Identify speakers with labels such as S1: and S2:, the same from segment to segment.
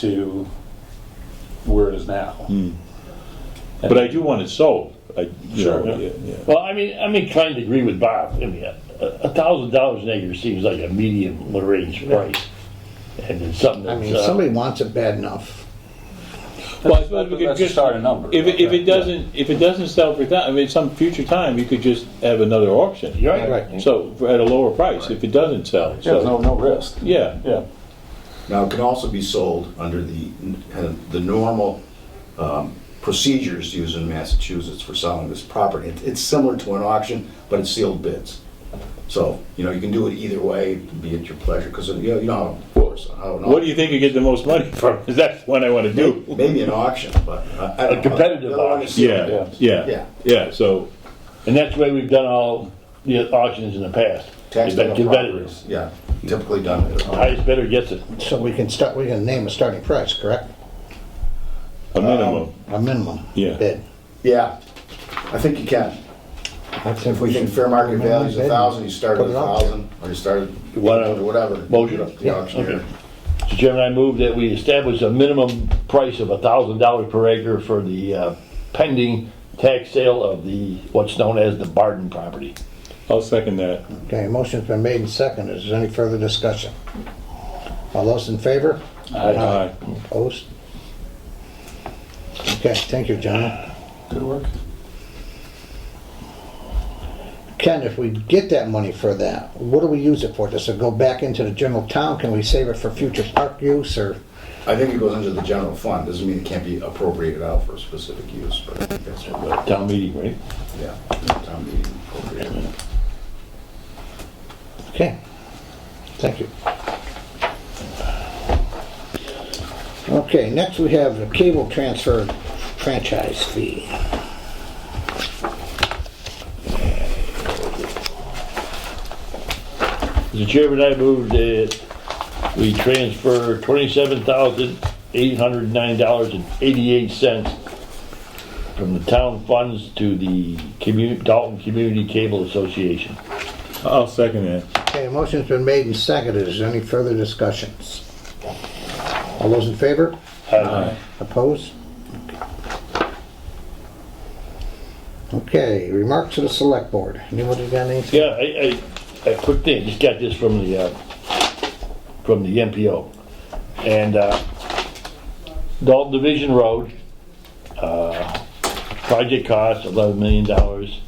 S1: to where it is now.
S2: Mm. But I do want it sold. I, you know,
S1: Sure.
S2: yeah, yeah.
S3: Well, I mean, I mean, kind of agree with Bob. I mean, a thousand dollars an acre seems like a medium range price. And it's something
S4: I mean,
S3: that's,
S4: if
S3: uh,
S4: somebody wants it bad enough.
S2: Well, I
S1: But
S2: suppose we could
S1: Let's
S2: just,
S1: start a number.
S2: if, it- if it doesn't, if it doesn't sell for that, I mean, some future time, you could just have another auction.
S3: you're right.
S2: So, for- at a lower price, if it doesn't sell,
S1: Yeah, There's no,
S2: so,
S1: no risk.
S2: yeah.
S1: Yeah.
S5: Now, it can also be sold under the, kind of the normal um, procedures used in Massachusetts for selling this property. It- It's similar to an auction, but it's sealed bids. So, you know, you can do it either way, be at your pleasure, because you know, you know, of course, I don't
S2: What do
S5: know.
S2: you think you get the most money from? 'Cause that's one I wanna do.
S5: Maybe an auction, but uh, I don't know.
S3: A competitive
S5: The other one is
S3: auction.
S5: sealed
S2: Yeah,
S5: bids.
S2: yeah,
S5: Yeah.
S2: yeah, so,
S3: And that's the way we've done all the auctions in the past.
S5: Tax
S3: Give that-
S5: title
S3: give that it.
S5: properties, yeah, typically done. at a-
S3: Highest bidder gets it.
S4: So we can start, we can name a starting price, correct?
S2: a minimum.
S4: A minimum
S2: Yeah.
S4: bid.
S5: Yeah, I think you can. If we think fair market value is a thousand, you start at a thousand, or you start at
S3: Whatever.
S5: whatever.
S3: Motion.
S5: The auctioneer.
S3: So Chairman, I move that we establish a minimum price of thousand dollars per acre for the uh, pending tax sale of the, what's known as the Barden property.
S2: I'll second that.
S4: Okay, motion's been made and seconded. Is there any further discussion? All those in favor?
S2: Aye.
S4: Opposed? Okay, thank you, John.
S1: Good work.
S4: Ken, if we get that money for that, what do we use it for? Does it go back into the general town? Can we save it for future park use or?
S5: I think it goes into the general fund, doesn't mean it can't be appropriated out for a specific use, but I think that's what,
S3: Town meeting, right?
S5: yeah, town meeting appropriated.
S4: Okay, thank you. Okay, next we have the cable transfer franchise fee.
S3: The chairman, I moved that we transfer twenty-seven thousand eight hundred nine dollars and eighty-eight cents from the town funds to the commu- Dalton Community Cable Association.
S2: I'll second that.
S4: Okay, a motion's been made and seconded, is there any further discussions? All those in favor?
S3: Aye.
S4: Opposed? Okay, remarks to the select board, anybody got anything?
S3: Yeah, I, I, a quick thing, just got this from the, uh, from the MPO. And, uh, Dalton Division Road, uh, project cost eleven million dollars,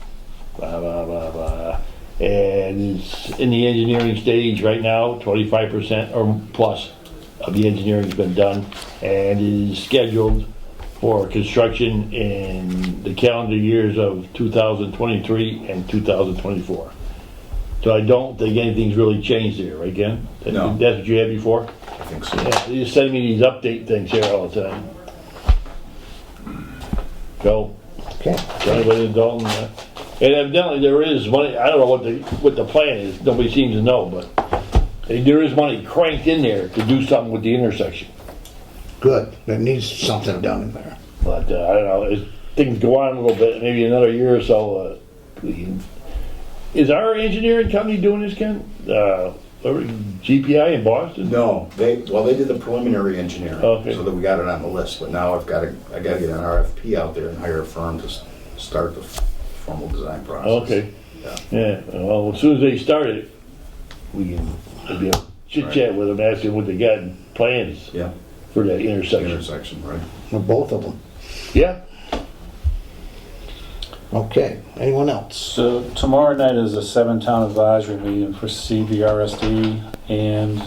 S3: blah, blah, blah, blah. And it's in the engineering stage right now, twenty-five percent or plus of the engineering's been done and is scheduled for construction in the calendar years of two thousand twenty-three and two thousand twenty-four. So I don't think anything's really changed there, right, Ken?
S5: No.
S3: That's what you had before?
S5: I think so.
S3: Yeah, you send me these update things here all the time. So,
S4: Okay,
S3: anybody in Dalton, uh, and evidently there is money, I don't know what the, what the plan is, nobody seems to know, but there is money cranked in there to do something with the intersection.
S4: good, that needs something done in there.
S3: But, uh, I don't know, as things go on a little bit, maybe another year or so, uh, we can- is our engineering company doing this, Ken? Uh, or GPI in Boston?
S5: No, they, well, they did the preliminary engineering,
S3: Oh, Okay.
S5: so that we got it on the list, but now I've gotta, I gotta get an RFP out there and hire a firm to s- start the f- formal design process.
S3: Okay.
S5: Yeah.
S3: Yeah, well, as soon as they start it, we can, we'll be able to chit chat with them, ask them what they got in plans
S5: Yeah,
S3: for that intersection.
S5: intersection, right?
S4: Well, Both of them.
S3: Yeah,
S4: Okay, anyone else?
S1: So uh, tomorrow night is a seven-town advisory meeting for CBRSD, and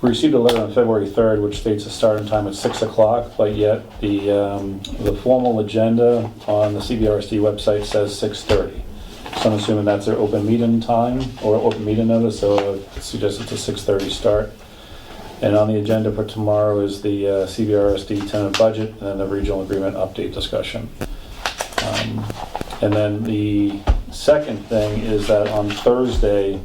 S1: we received a letter on February 3rd, which states the starting time at 6 o'clock, but yet the, um, the formal agenda on the CBRSD website says 6:30. So I'm assuming that's their open meeting time, or open meeting notice, so I suggest it's a 6:30 start. And on the agenda for tomorrow is the uh, CBRSD tenant budget and then the regional agreement update discussion. Um, and then the second thing is that on Thursday,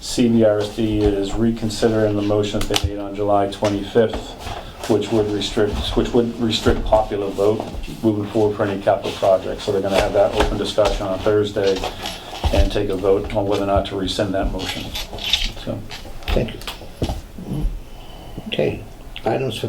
S1: CBRSD is reconsidering the motion that they made on July 25th, which would restrict, which would restrict popular vote moving forward for any capital project. So they're going to have that open discussion on Thursday and take a vote on whether or not to rescind that motion. So.
S4: Thank you. Okay, items for